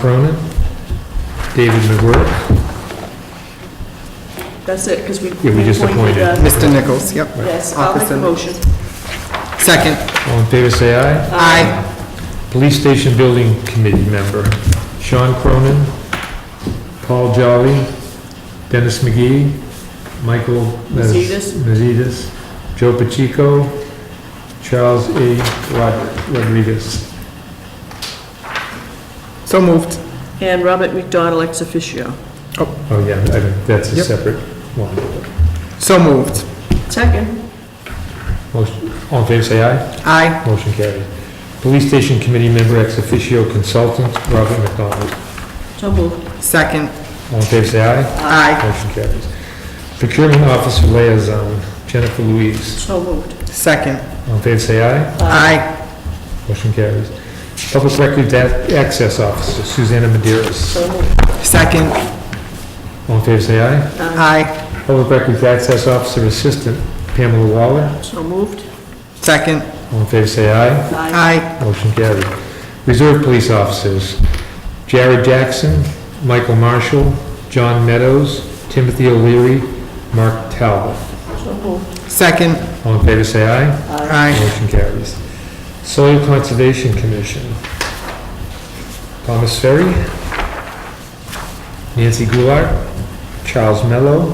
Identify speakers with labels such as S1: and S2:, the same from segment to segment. S1: Cronin, David McGuirk.
S2: That's it, because we. uh,
S1: Yeah, we just appointed.
S3: Mr. Nichols, yep.
S2: Yes, I'll make a
S3: Officer.
S2: motion.
S3: Second.
S1: All in favor, say aye.
S3: Aye.
S1: Police Station Building Committee member, Sean Cronin, Paul Jolly, Dennis McGee, Michael.
S2: Mazetas.
S1: Mazetas, Joe Pacheco, Charles A. Rod- Rodriguez.
S3: So moved.
S2: Uh, And Robert McDonald ex officio.
S1: Oh, yeah, I think that's a
S3: Yep.
S1: separate one.
S3: So moved.
S2: Second.
S1: Motion- All in favor, say aye.
S3: Aye.
S1: Motion carried. Police Station Committee member ex officio consultant, Robert McDonald.
S2: So moved.
S3: Second.
S1: All in favor, say aye.
S3: Aye.
S1: Motion carries. Procurement Officer Liaison, Jennifer Louise.
S2: So moved.
S3: Second.
S1: All in favor, say aye.
S3: Aye.
S1: Motion carries. Public Records Ac- Access Officer, Susanna Maderas.
S2: So moved.
S3: Second.
S1: All in favor, say aye.
S3: Aye.
S1: Public Records Access Officer Assistant, Pamela Waller.
S2: So moved.
S3: Second.
S1: All in favor, say aye.
S2: Aye.
S3: Aye.
S1: Motion carries. Reserve Police Officers, Jared Jackson, Michael Marshall, John Meadows, Timothy O'Leary, Mark Talbot.
S2: So moved.
S3: Second.
S1: All in favor, say aye.
S3: Aye.
S1: Motion carries. Soil Conservation Commission. Thomas Ferry, Nancy Goulart, Charles Mello,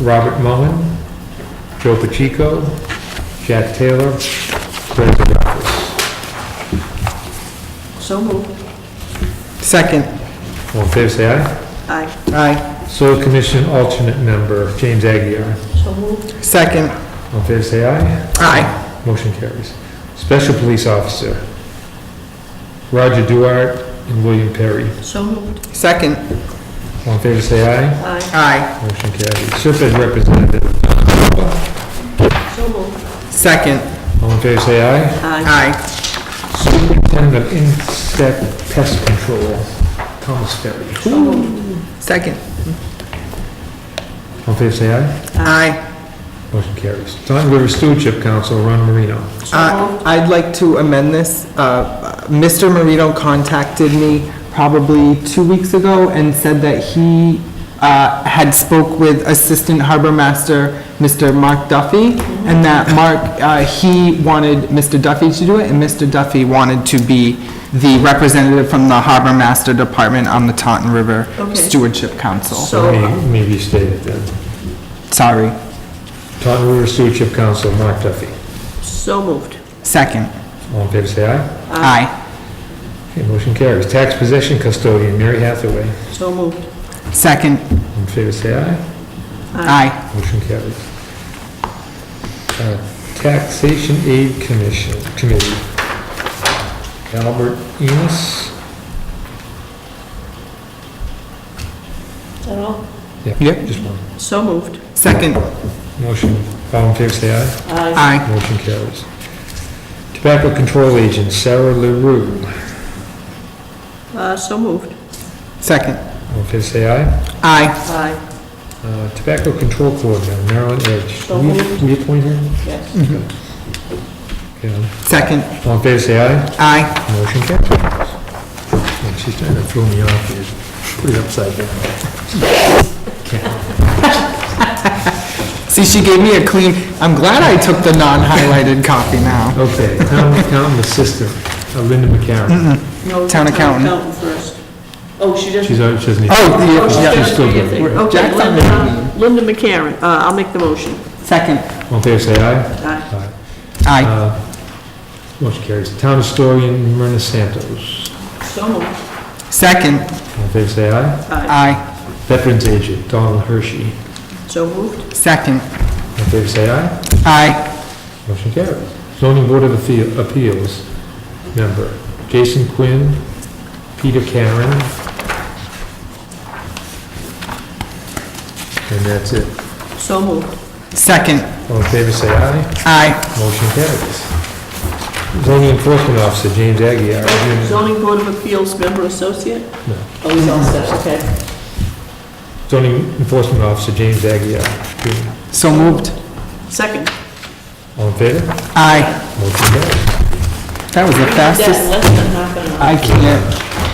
S1: Robert Mullen, Joe Pacheco, Jack Taylor, Greg Zagorowski.
S2: So moved.
S3: Second.
S1: All in favor, say aye.
S2: Aye.
S3: Aye.
S1: Soil Commission Alternate Member, James Aguirre.
S2: So moved.
S3: Second.
S1: All in favor, say aye.
S3: Aye.
S1: Motion carries. Special Police Officer, Roger Duart and William Perry.
S2: So moved.
S3: Second.
S1: All in favor, say aye.
S2: Aye.
S3: Aye.
S1: Motion carries. Serpent representative,
S2: So moved.
S3: Second.
S1: all in favor, say aye.
S2: Aye.
S3: Aye.
S1: Superintendent of Insect Pest Control, Thomas Ferry.
S2: So moved.
S3: Second.
S1: All in favor, say aye.
S3: Aye.
S1: Motion carries. Taunton River Stewardship Council, Ron Marino.
S2: So
S3: Uh,
S2: moved.
S3: I'd like to amend this. Uh, Mr. Marino contacted me probably two weeks ago and said that he uh, had spoke with Assistant Harbor Master, Mr. Mark Duffy, and that Mark, uh, he wanted Mr. Duffy to do it, and Mr. Duffy wanted to be the representative from the Harbor Master Department on the Taunton River
S2: Okay.
S3: Stewardship Council.
S2: So,
S1: Let me- Let me restate it then.
S3: Sorry.
S1: Taunton River Stewardship Council, Mark Duffy.
S2: so moved.
S3: Second.
S1: All in favor, say aye.
S3: Aye.
S1: Okay, motion carries. Tax Possession Custodian, Mary Hathaway.
S2: So moved.
S3: Second.
S1: All in favor, say aye.
S3: Aye.
S1: Motion carries. Uh, Taxation Aid Commission, Committee. Albert Enos,
S2: Is that all?
S3: Yep.
S1: just one.
S2: So moved.
S3: Second.
S1: Motion, all in favor, say aye.
S2: Aye.
S3: Aye.
S1: Motion carries. Tobacco Control Agent Sarah LaRue,
S2: Uh, so moved.
S3: Second.
S1: all in favor, say aye.
S3: Aye.
S2: Aye.
S1: Uh, Tobacco Control Coordinator Marilyn Edge,
S2: So
S1: we
S2: moved.
S1: we appoint her?
S3: Mm.
S2: Yes.
S1: Yeah.
S3: Second.
S1: All in favor, say aye.
S3: Aye.
S1: Motion carries. Man, She's trying to throw me off here, put it upside down.
S3: See, she gave me a clean, I'm glad I took the non-highlighted copy now.
S1: Okay, town accountant assistant, uh, Linda McCarron.
S2: No,
S3: Town accountant.
S2: first. Oh, she doesn't.
S1: She's, on- she doesn't need,
S3: Oh,
S2: Oh,
S3: the-
S2: she's
S3: yeah.
S2: got
S1: she's still
S2: three, I
S1: good.
S2: think.
S1: We're-
S2: Okay,
S3: Jack's on
S2: Linda, Linda McCarron, uh, I'll make the motion.
S3: Second.
S1: all in favor, say aye.
S2: Aye.
S1: Aye.
S3: Aye.
S1: Uh, Motion carries. Town historian Myrna Santos.
S2: So moved.
S3: Second.
S1: All in favor, say aye.
S2: Aye.
S3: Aye.
S1: Veterans agent Donald Hershey.
S2: So moved.
S3: Second.
S1: All in favor, say aye.
S3: Aye.
S1: Motion carries. Zoning Board of Appeal- Appeals member Jason Quinn, Peter Karen. And that's it.
S2: So moved.
S3: Second.
S1: All in favor, say aye.
S3: Aye.
S1: Motion carries. Zoning Enforcement Officer, James Aguirre. Jr.
S2: Zoning Board of Appeals Member Associate?
S1: No.
S2: Oh, he's all set, okay.
S1: Zoning Enforcement Officer, James Aguirre. Jr.
S3: So moved.
S2: Second.
S1: All in favor?
S3: Aye.
S1: Motion carries.
S3: That was the
S2: Yeah,
S3: fastest.
S2: less than half an hour.
S3: I can't.